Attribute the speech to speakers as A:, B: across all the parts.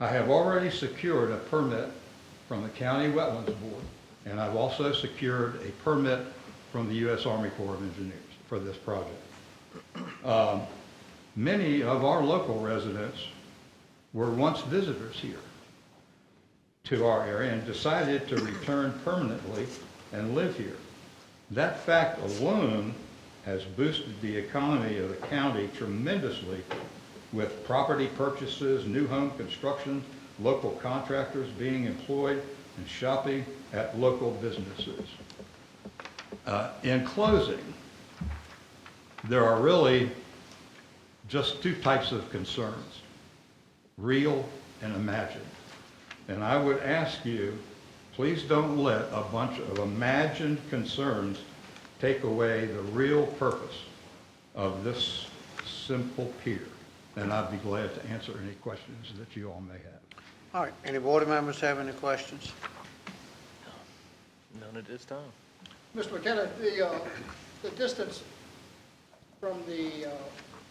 A: I have already secured a permit from the County Wetlands Board, and I've also secured a permit from the U.S. Army Corps of Engineers for this project. Um, Many of our local residents were once visitors here to our area and decided to return permanently and live here. That fact alone has boosted the economy of the county tremendously with property purchases, new home construction, local contractors being employed, and shopping at local businesses. Uh, In closing, there are really just two types of concerns, real and imagined. And I would ask you, please don't let a bunch of imagined concerns take away the real purpose of this simple pier. And I'd be glad to answer any questions that you all may have.
B: All right, any board members have any questions?
C: None at this time.
D: Mr. McKenna, the, uh, the distance from the uh,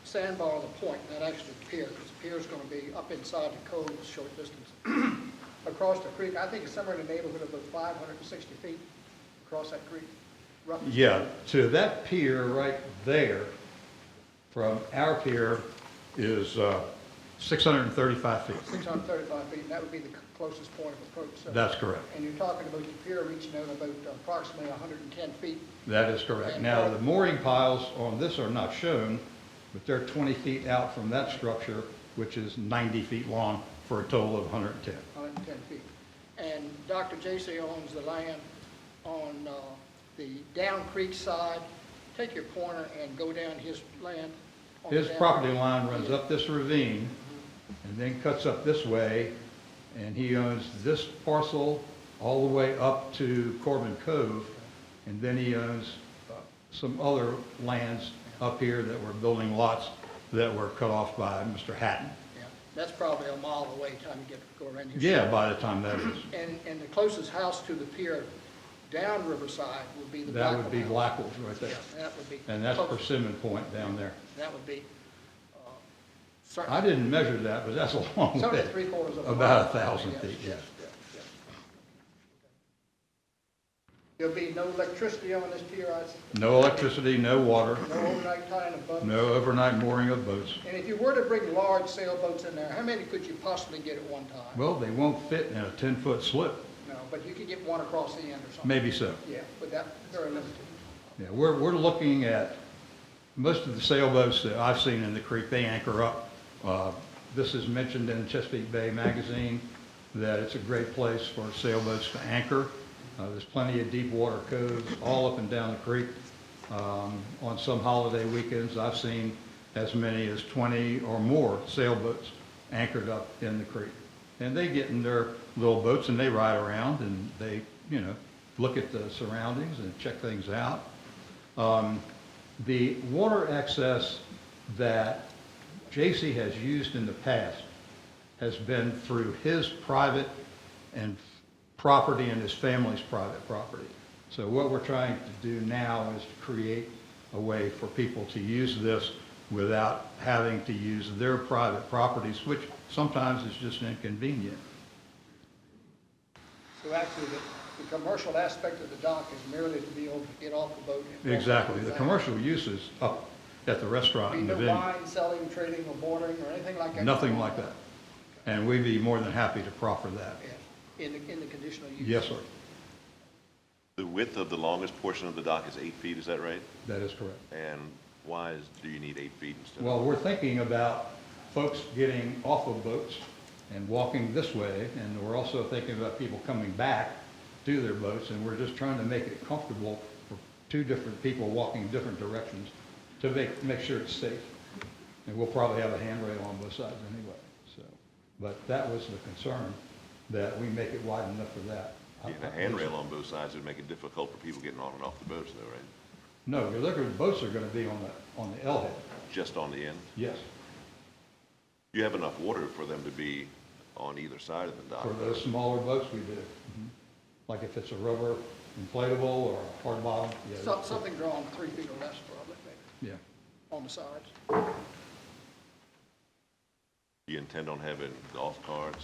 D: sandbar to the point, not actually the pier, because the pier's going to be up inside the cove a short distance, across the creek, I think it's somewhere in the neighborhood of about 560 feet across that creek, roughly.
A: Yeah, to that pier right there, from our pier, is uh, 635 feet.
D: 635 feet, and that would be the closest point of approach. so-
A: That's correct.
D: And you're talking about the pier reaching out about approximately 110 feet.
A: That is correct. Now, the mooring piles on this are not shown, but they're 20 feet out from that structure, which is 90 feet long, for a total of 110.
D: 110 feet. And Dr. J.C. owns the land on uh, the down creek side. Take your corner and go down his land. on the
A: His
D: down-
A: property line runs up this ravine and then cuts up this way, and he owns this parcel all the way up to Corbin Cove, and then he owns uh, some other lands up here that were building lots that were cut off by Mr. Hatton.
D: Yeah, That's probably a mile away, time you get to go around here.
A: Yeah, by the time that is,
D: And, and the closest house to the pier down Riverside would be the
A: that
D: Blackwell
A: would be
D: house.
A: Blackwell's right
D: Yeah,
A: there.
D: that would be.
A: And that's
D: close.
A: Persimmon Point down there.
D: That would be, uh, certain.
A: I didn't measure that, but that's a long
D: It's only
A: way.
D: three quarters of a mile.
A: About a thousand feet, yes.
D: There'll be no electricity on this pier, I s-
A: No electricity, no water,
D: no overnight tying of boats.
A: no overnight mooring of boats.
D: And if you were to bring large sailboats in there, how many could you possibly get at one time?
A: Well, they won't fit in a 10-foot slip,
D: No, but you could get one across the end or something.
A: maybe so.
D: Yeah, but that, very limited.
A: Yeah, we're, we're looking at, most of the sailboats that I've seen in the creek, they anchor up. Uh, This is mentioned in Chesapeake Bay Magazine, that it's a great place for sailboats to anchor. Uh, There's plenty of deep water coves all up and down the creek. Um, On some holiday weekends, I've seen as many as 20 or more sailboats anchored up in the creek. And they get in their little boats and they ride around and they, you know, look at the surroundings and check things out. Um, The water access that J.C. has used in the past has been through his private and property and his family's private property. So what we're trying to do now is to create a way for people to use this without having to use their private properties, which sometimes is just inconvenient.
D: So actually, the, the commercial aspect of the dock is merely to be able to get off the boat. and walk
A: Exactly. The
D: around.
A: commercial use is up at the restaurant
D: Be
A: and the
D: no
A: venue.
D: wine selling, trading, or boarding, or anything like that?
A: Nothing like that. And we'd be more than happy to proffer that.
D: Yeah, In the, in the conditional use?
A: Yes, sir.
E: The width of the longest portion of the dock is eight feet, is that right?
A: That is correct.
E: And why is, do you need eight feet instead of?
A: Well, we're thinking about folks getting off of boats and walking this way, and we're also thinking about people coming back to their boats, and we're just trying to make it comfortable for two different people walking different directions to make, make sure it's safe. And we'll probably have a handrail on both sides anyway, so. But that was the concern, that we make it wide enough for that. I-
E: Yeah, The handrail on both sides would make it difficult for people getting on and off the boats though, right?
A: No, your liquor boats are gonna be on the, on the L head,
E: Just on the end?
A: yes,
E: You have enough water for them to be on either side of the dock?
A: for those smaller boats we do. Mhm. Like if it's a rubber inflatable or a hard bottom, yeah.
D: Some- Something drawn three feet or less, probably, maybe,
A: Yeah,
D: on the sides.
E: Do you intend on having golf carts